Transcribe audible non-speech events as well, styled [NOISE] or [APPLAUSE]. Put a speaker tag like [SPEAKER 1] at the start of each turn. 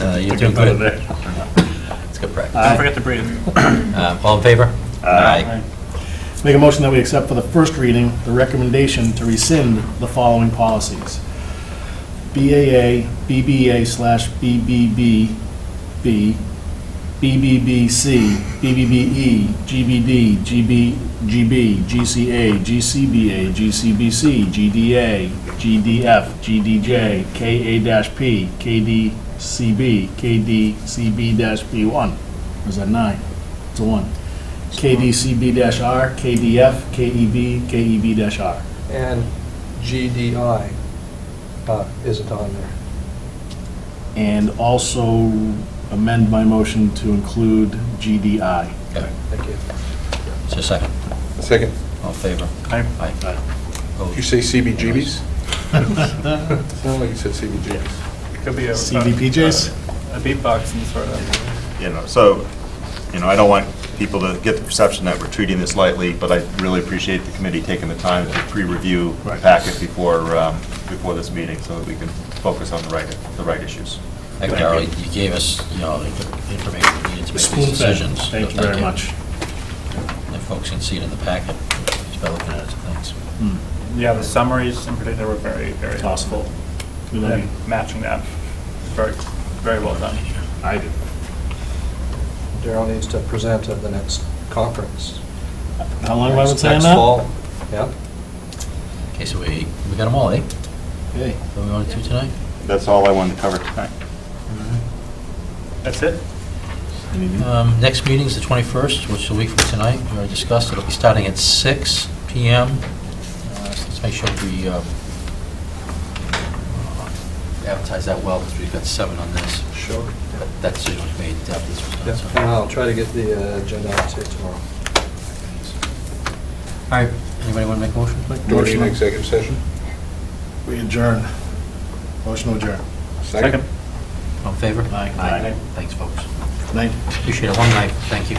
[SPEAKER 1] Uh, You're
[SPEAKER 2] We're
[SPEAKER 1] doing
[SPEAKER 2] gonna put it
[SPEAKER 1] good.
[SPEAKER 2] there.
[SPEAKER 1] It's good practice.
[SPEAKER 2] Don't forget to breathe.
[SPEAKER 1] Um, All in favor? Aye.
[SPEAKER 3] Make a motion that we accept for the first reading the recommendation to rescind the following policies. BAA, BBA slash BBB, B, BBBC, BBBE, GBD, GB, GB, GCA, GCBA, GCBC, GDA, GDF, GDJ, KA-P, KDCB, KDCB-B1. Or is that nine? It's a one. KDCB-R, KDF, KEB, KEB-R.
[SPEAKER 4] And GDI uh, isn't on there.
[SPEAKER 3] And also amend my motion to include GDI.
[SPEAKER 1] Okay,
[SPEAKER 4] Thank you.
[SPEAKER 1] Is there a second?
[SPEAKER 5] Second,
[SPEAKER 1] All in favor?
[SPEAKER 2] Aye.
[SPEAKER 1] Aye.
[SPEAKER 5] Did
[SPEAKER 1] Opposed?
[SPEAKER 5] you say [LAUGHS] CBGBs? Sounded like you said CBGBs.
[SPEAKER 2] Could be a.
[SPEAKER 3] CBPJs?
[SPEAKER 2] A beatboxing sort of.
[SPEAKER 6] you know, so, you know, I don't want people to get the perception that we're treating this lightly, but I really appreciate the committee taking the time to pre-review the
[SPEAKER 3] Right.
[SPEAKER 6] packet before, um, before this meeting, so that we can focus on the right, the right issues.
[SPEAKER 1] Thank you, Darrell. You gave us, you know, the information we needed to make these decisions. So
[SPEAKER 3] Thank you very much.
[SPEAKER 1] And folks can see it in the packet, just by looking at it, so thanks.
[SPEAKER 2] Yeah, the summaries in particular were very, very
[SPEAKER 3] Possible.
[SPEAKER 2] helpful.
[SPEAKER 3] We love you.
[SPEAKER 2] And matching that, very, very well done.
[SPEAKER 3] I do.
[SPEAKER 4] Daryl needs to present at the next conference.
[SPEAKER 3] How long have I been
[SPEAKER 4] Next-
[SPEAKER 3] saying
[SPEAKER 4] Next
[SPEAKER 3] that?
[SPEAKER 4] fall, yeah.
[SPEAKER 1] Okay, so we, we got them all, eh?
[SPEAKER 3] Hey,
[SPEAKER 1] What we wanted to tonight?
[SPEAKER 6] That's all I wanted to cover tonight.
[SPEAKER 2] That's it?
[SPEAKER 3] anything?
[SPEAKER 1] Um, Next meeting's the 21st, which is a week from tonight. We already discussed, it'll be starting at 6 PM. Uh, so Let's make sure we um, uh, advertise that well, because we've got seven on this.
[SPEAKER 4] Sure.
[SPEAKER 1] But That decision was made after this was
[SPEAKER 4] Yeah,
[SPEAKER 1] done, so.
[SPEAKER 4] and I'll try to get the uh, agenda out to you tomorrow.
[SPEAKER 1] All right, anybody want to make a motion?
[SPEAKER 5] Do we need an executive session?
[SPEAKER 3] We adjourn. Motion to adjourn.
[SPEAKER 5] Second.
[SPEAKER 1] All in favor?
[SPEAKER 3] Aye.
[SPEAKER 1] Thanks, folks.
[SPEAKER 3] Night.
[SPEAKER 1] Appreciate it, long night, thank you.